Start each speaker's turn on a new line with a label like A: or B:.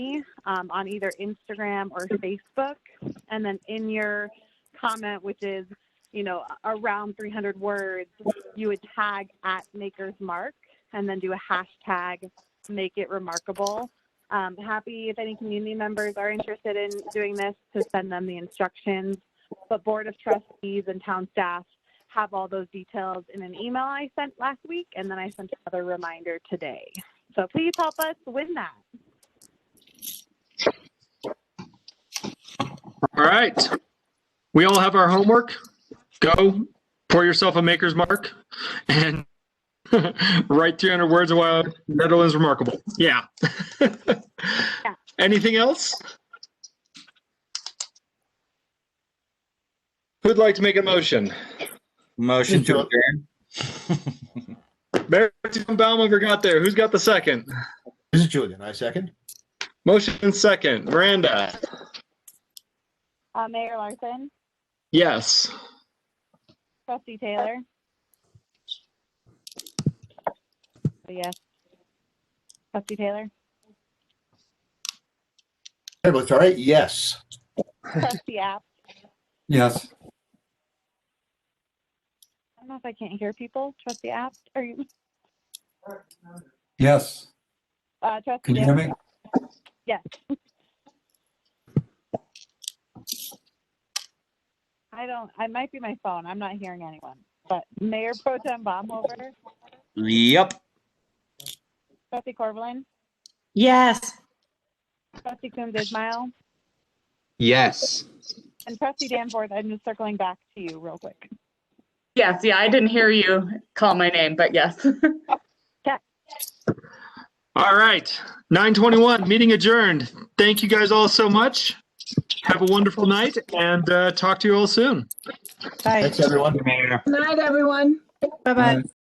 A: me um, on either Instagram or Facebook, and then in your comment, which is you know around 300 words, you would tag at Maker's Mark and then do a hashtag Make It Remarkable. Um, happy if any community members are interested in doing this to send them the instructions. But Board of Trustees and town staff have all those details in an email I sent last week, and then I sent another reminder today. So please help us win that.
B: All right. We all have our homework. Go pour yourself a maker's mark and write 300 words of why Netherlands remarkable. Yeah. Anything else? Who'd like to make a motion?
C: Motion to adjourn.
B: Barry Baumhofer got there. Who's got the second?
D: This is Julian. I second.
B: Motion and second. Miranda.
A: Uh, Mayor Larson,
B: Yes.
A: Trustee Taylor. Yes. Trustee Taylor,
D: Everybody's all right? Yes.
A: Trustee App.
C: Yes.
A: I don't know if I can't hear people. Trustee App, are you?
C: Yes.
A: Uh, Trustee
C: Can you hear
A: Davis?
C: me?
A: Yes. I don't, I might be my phone. I'm not hearing anyone. But Mayor Pro Tem Baumhover,
C: Yep.
A: Trustee Corvallin,
E: Yes.
A: Trustee Coombs Ismail,
C: Yes.
A: and Trustee Danforth, I'm just circling back to you real quick.
E: Yes, yeah, I didn't hear you call my name, but yes.
B: All right. 921, meeting adjourned. Thank you guys all so much. Have a wonderful night and uh, talk to you all soon.
D: Thanks, everyone.
C: Mayor.
F: Good night, everyone.
C: Bye-bye.